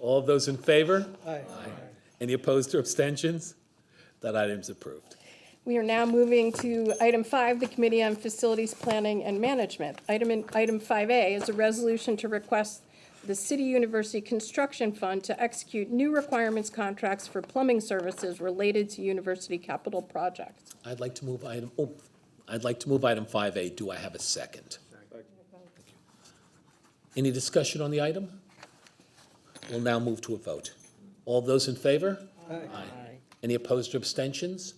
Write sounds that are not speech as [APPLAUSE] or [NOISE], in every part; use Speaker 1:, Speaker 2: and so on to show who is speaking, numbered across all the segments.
Speaker 1: All of those in favor?
Speaker 2: Aye.
Speaker 1: Any opposed or abstentions? That item's approved.
Speaker 3: We are now moving to item five, the Committee on Facilities Planning and Management. Item, in- item five A is a resolution to request the City University Construction Fund to execute new requirements contracts for plumbing services related to university capital projects.
Speaker 1: I'd like to move item, oh, I'd like to move item five A. Do I have a second? Any discussion on the item? We'll now move to a vote. All those in favor? Aye. Any opposed or abstentions?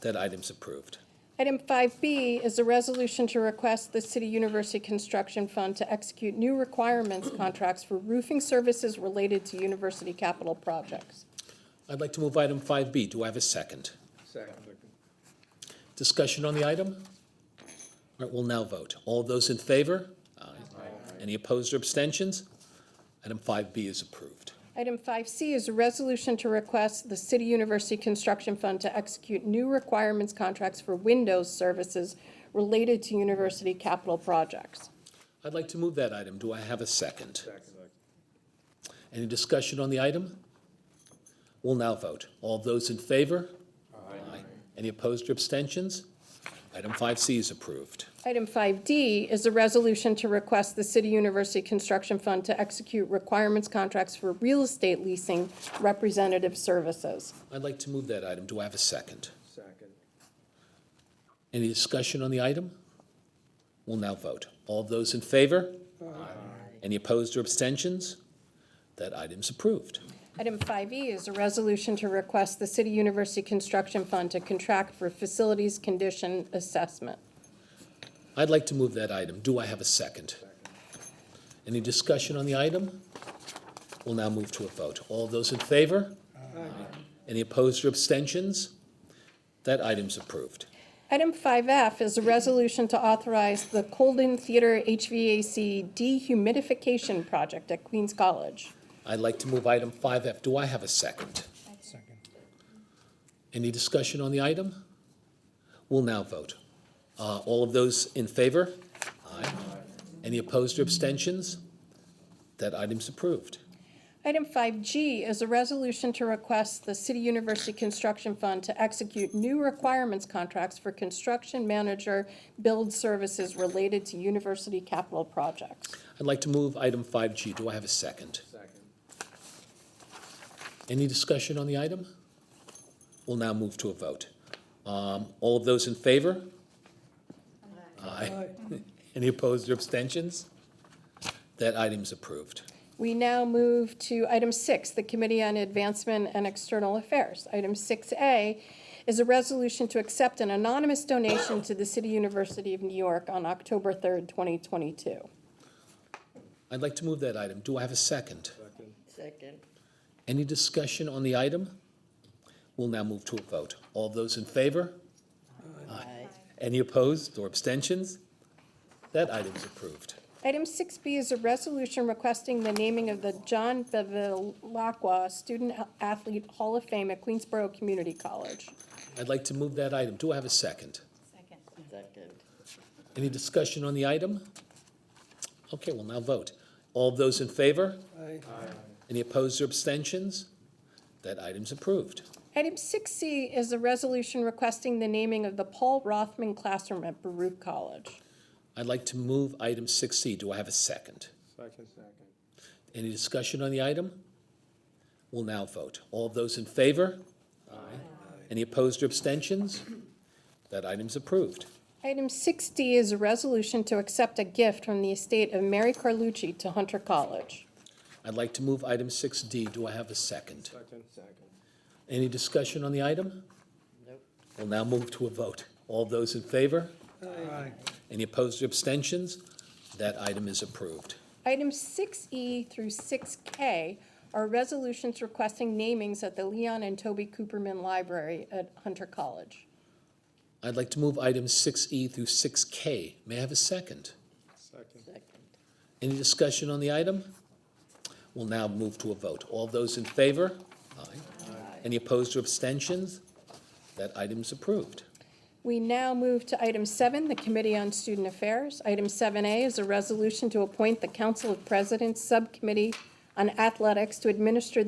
Speaker 1: That item's approved.
Speaker 3: Item five B is a resolution to request the City University Construction Fund to execute new requirements contracts for roofing services related to university capital projects.
Speaker 1: I'd like to move item five B. Do I have a second?
Speaker 2: Second.
Speaker 1: Discussion on the item? All right, we'll now vote. All those in favor? Aye. Any opposed or abstentions? Item five B is approved.
Speaker 3: Item 5C is a resolution to request the City University Construction Fund to execute new requirements contracts for windows services related to university capital projects.
Speaker 1: I'd like to move that item. Do I have a second? Any discussion on the item? We'll now vote. All those in favor? Aye. Any opposed or abstentions? Item 5C is approved.
Speaker 3: Item 5D is a resolution to request the City University Construction Fund to execute requirements contracts for real estate leasing representative services.
Speaker 1: I'd like to move that item. Do I have a second?
Speaker 2: Second.
Speaker 1: Any discussion on the item? We'll now vote. All those in favor? Aye. Any opposed or abstentions? That item's approved.
Speaker 3: Item 5E is a resolution to request the City University Construction Fund to contract for facilities condition assessment.
Speaker 1: I'd like to move that item. Do I have a second? Any discussion on the item? We'll now move to a vote. All those in favor? Any opposed or abstentions? That item's approved.
Speaker 3: Item 5F is a resolution to authorize the Colden Theater HVAC dehumidification project at Queens College.
Speaker 1: I'd like to move item 5F. Do I have a second?
Speaker 2: Second.
Speaker 1: Any discussion on the item? We'll now vote. Uh, All of those in favor? Aye. Any opposed or abstentions? That item's approved.
Speaker 3: Item 5G is a resolution to request the City University Construction Fund to execute new requirements contracts for construction manager build services related to university capital projects.
Speaker 1: I'd like to move item 5G. Do I have a second?
Speaker 2: Second.
Speaker 1: Any discussion on the item? We'll now move to a vote. Um, All of those in favor? Aye. [LAUGHS] Any opposed or abstentions? That item's approved.
Speaker 3: We now move to item six, the Committee on Advancement and External Affairs. Item six A is a resolution to accept an anonymous donation to the City University of New York on October third, twenty twenty-two.
Speaker 1: I'd like to move that item. Do I have a second?
Speaker 4: Second.
Speaker 1: Any discussion on the item? We'll now move to a vote. All those in favor?
Speaker 4: Aye.
Speaker 1: Any opposed or abstentions? That item is approved.
Speaker 3: Item six B is a resolution requesting the naming of the John Bevilacqua Student Athlete Hall of Fame at Queensborough Community College.
Speaker 1: I'd like to move that item. Do I have a second?
Speaker 4: Second.
Speaker 1: Any discussion on the item? Okay, we'll now vote. All those in favor?
Speaker 2: Aye.
Speaker 1: Any opposed or abstentions? That item's approved.
Speaker 3: Item six C is a resolution requesting the naming of the Paul Rothman Classroom at Baruch College.
Speaker 1: I'd like to move item 6C. Do I have a second?
Speaker 2: Second. Second.
Speaker 1: Any discussion on the item? We'll now vote. All those in favor? Aye. Any opposed or abstentions? That item's approved.
Speaker 3: Item 6D is a resolution to accept a gift from the estate of Mary Carlucci to Hunter College.
Speaker 1: I'd like to move item 6D. Do I have a second?
Speaker 2: Second. Second.
Speaker 1: Any discussion on the item?
Speaker 4: Nope.
Speaker 1: We'll now move to a vote. All those in favor?
Speaker 2: Aye.
Speaker 1: Any opposed or abstentions? That item is approved.
Speaker 3: Items 6E through 6K are resolutions requesting namings at the Leon and Toby Cooperman Library at Hunter College.
Speaker 1: I'd like to move items 6E through 6K. May I have a second?
Speaker 2: Second.
Speaker 4: Second.
Speaker 1: Any discussion on the item? We'll now move to a vote. All those in favor? Aye. Any opposed or abstentions? That item's approved.
Speaker 3: We now move to item 7, the Committee on Student Affairs. Item 7A is a resolution to appoint the Council of Presidents Subcommittee on athletics to administer